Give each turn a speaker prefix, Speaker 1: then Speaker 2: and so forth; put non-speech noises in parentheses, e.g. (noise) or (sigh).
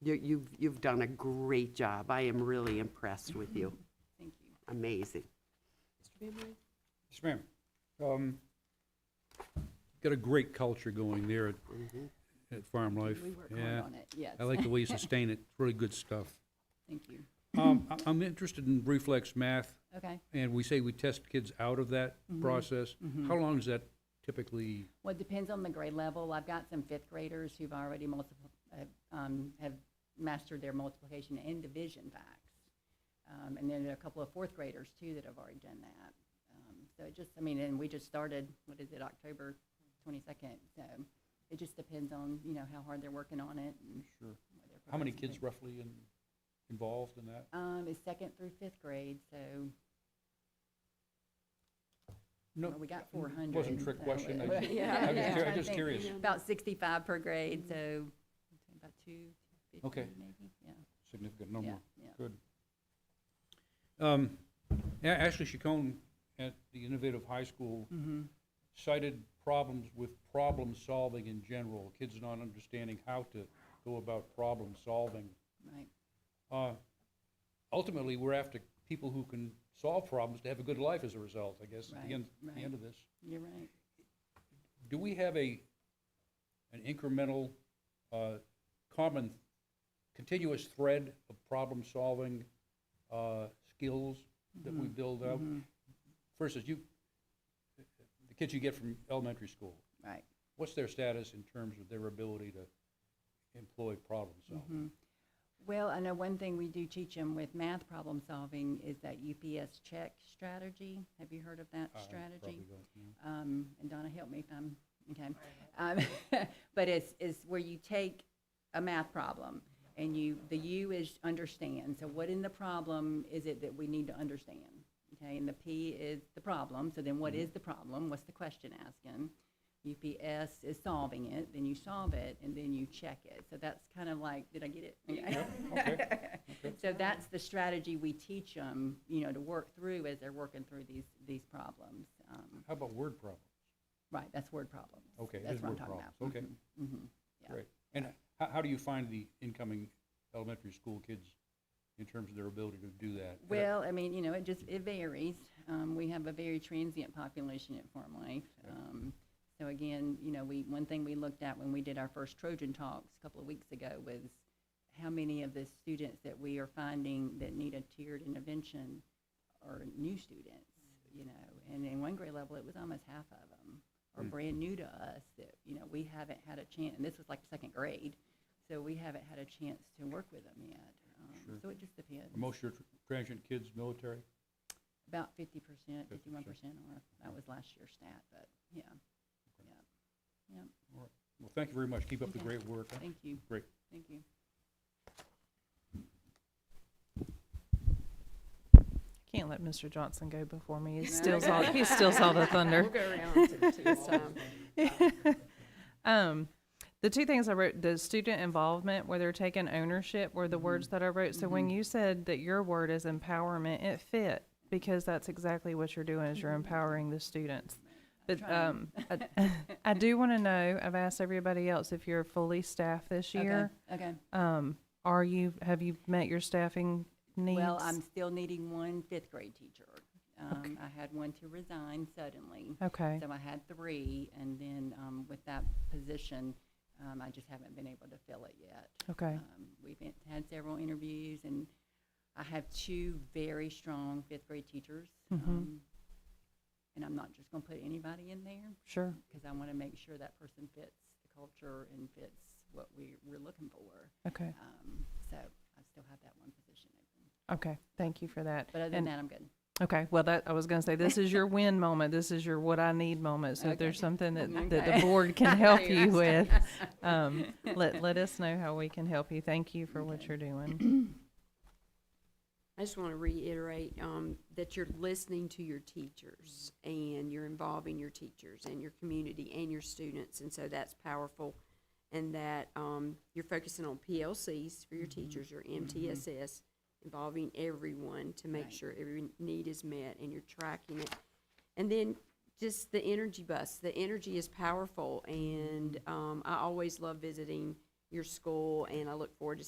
Speaker 1: You- You've, you've done a great job. I am really impressed with you.
Speaker 2: Thank you.
Speaker 1: Amazing.
Speaker 3: Yes, ma'am. Um, Got a great culture going there at, at Farm Life.
Speaker 2: Mm-hmm. We work
Speaker 3: Yeah.
Speaker 2: hard on it, yes.
Speaker 3: I like the way you sustain it. It's really good stuff.
Speaker 2: (laughs) Thank you.
Speaker 3: Um, I- I'm interested in reflex math,
Speaker 2: Okay.
Speaker 3: and we say we test kids out of that
Speaker 2: Mm-hmm.
Speaker 3: process. How long is that typically?
Speaker 2: Well, it depends on the grade level. I've got some fifth graders who've already multiple, have, um, have mastered their multiplication and division facts. Um, and then there are a couple of fourth graders too that have already done that. Um, so it just, I mean, and we just started, what is it, October twenty-second? So it just depends on, you know, how hard they're working on it and.
Speaker 3: Sure.
Speaker 2: what they're
Speaker 3: How many
Speaker 2: proposing.
Speaker 3: kids roughly in, involved in that?
Speaker 2: Um, it's second through fifth grade, so
Speaker 3: No,
Speaker 2: well, we got four hundred.
Speaker 3: Wasn't a trick question. I
Speaker 2: (laughs)
Speaker 3: just-
Speaker 2: Yeah.
Speaker 3: I'm just
Speaker 2: yeah,
Speaker 3: curi-
Speaker 2: trying
Speaker 3: I'm
Speaker 2: to
Speaker 3: just
Speaker 2: think.
Speaker 3: curious.
Speaker 2: About sixty-five per grade, so about two
Speaker 3: Okay.
Speaker 2: fifty maybe, yeah,
Speaker 3: Significant
Speaker 2: yeah,
Speaker 3: number.
Speaker 2: yeah.
Speaker 3: Good. Um, A- Ashley Chacon at the Innovative High School
Speaker 2: Mm-hmm.
Speaker 3: cited problems with problem solving in general, kids not understanding how to go about problem solving.
Speaker 2: Right,
Speaker 3: Uh, Ultimately, we're after people who can solve problems to have a good life as a result, I guess, at
Speaker 2: Right,
Speaker 3: the end, the
Speaker 2: right.
Speaker 3: end of this.
Speaker 2: you're right.
Speaker 3: Do we have a, an incremental, uh, common, continuous thread of problem-solving uh, skills that we build up? Versus you, the kids you get from elementary school,
Speaker 2: Right.
Speaker 3: what's their status in terms of their ability to employ problem-solving?
Speaker 2: Well, I know one thing we do teach them with math problem solving is that UPS check strategy. Have you heard of that
Speaker 3: I
Speaker 2: strategy?
Speaker 3: probably don't know.
Speaker 2: um, and Donna, help me if I'm, okay. Um, (laughs) But it's, it's where you take a math problem, and you, the U is understand, so what in the problem is it that we need to understand? Okay, and the P is the problem, so then what is the problem? What's the question asking? UPS is solving it, then you solve it, and then you check it. So that's kind of like, did I get it? Okay. (laughs) So that's the strategy we teach them, you know, to work through as they're working through these, these problems. Um,
Speaker 3: How about word problems?
Speaker 2: Right, that's word problem.
Speaker 3: Okay, it
Speaker 2: That's
Speaker 3: is
Speaker 2: what I'm
Speaker 3: word
Speaker 2: talking
Speaker 3: problems,
Speaker 2: about.
Speaker 3: okay.
Speaker 2: Mhm, mhm. Yeah.
Speaker 3: Great. And how, how do you find the incoming elementary school kids in terms of their ability to do that? And, uh,
Speaker 2: Well, I mean, you know, it just, it varies. Um, we have a very transient population at Farm Life. Um, so again, you know, we, one thing we looked at when we did our first Trojan Talks a couple of weeks ago was how many of the students that we are finding that need a tiered intervention are new students, you know, and in one grade level, it was almost half of them are
Speaker 3: Hmm.
Speaker 2: brand new to us that, you know, we haven't had a chance, and this was like second grade, so we haven't had a chance to work with them yet. Um,
Speaker 3: Sure.
Speaker 2: So it just depends.
Speaker 3: Are most of your tr- transient kids military?
Speaker 2: About fifty percent, fifty-one
Speaker 3: 50%.
Speaker 2: percent, or that was last year's stat, but yeah, yeah, yeah.
Speaker 3: All right. Well, thank you very much. Keep up the
Speaker 2: Okay.
Speaker 3: great work. huh?
Speaker 2: Thank you,
Speaker 3: Great.
Speaker 2: thank you.
Speaker 4: Can't let Mr. Johnson go before me.
Speaker 2: (laughs) No.
Speaker 4: He steals all, he steals all the thunder.
Speaker 5: We'll go around to
Speaker 4: (laughs)
Speaker 5: this time.
Speaker 4: Um, the two things I wrote, the student involvement, where they're taking ownership, were
Speaker 2: Mm-hmm.
Speaker 4: the words that I wrote. So when you said that your word is empowerment, it fit because that's exactly what you're doing is you're
Speaker 2: Mm-hmm.
Speaker 4: empowering the students. But um, I, (laughs) I do want to know. I've asked everybody else if you're fully staffed this
Speaker 2: Okay,
Speaker 4: year.
Speaker 2: Okay,
Speaker 4: Um, are you? Have you met your staffing needs?
Speaker 2: well, I'm still needing one fifth grade teacher. Um, I had one to resign suddenly,
Speaker 4: okay.
Speaker 2: so I had three, and then, um, with that position, um, I just haven't been able to fill it yet.
Speaker 4: Okay.
Speaker 2: Um, We've been- had several interviews, and I have two very strong fifth grade teachers.
Speaker 4: Mm-hmm.
Speaker 2: um, And I'm not just going to put anybody in there,
Speaker 4: Sure.
Speaker 2: because I want to make sure that person fits the culture and fits what we, we're looking for.
Speaker 4: Okay.
Speaker 2: Um, So I still have that one position open.
Speaker 4: Okay. Thank you for that.
Speaker 2: But other than
Speaker 4: And-
Speaker 2: that, I'm good.
Speaker 4: Okay, well, that, I was gonna say, this is your win moment, this is your what I need moment, so if there's
Speaker 2: Okay.
Speaker 4: something that, that
Speaker 2: Okay.
Speaker 4: the board
Speaker 2: (laughs)
Speaker 4: can help you with, um, let, let us know how we can help you, thank you for what
Speaker 2: Okay.
Speaker 4: you're doing.
Speaker 5: I just want to reiterate um, that you're listening to your teachers and you're involving your teachers and your community and your students, and so that's powerful. And that um, you're focusing on PLCs for your teachers, your MTSS, involving everyone to make
Speaker 2: Right.
Speaker 5: sure every need is met, and you're tracking it. And then just the energy bus. The energy is powerful, and um, I always love visiting your school, and I look forward to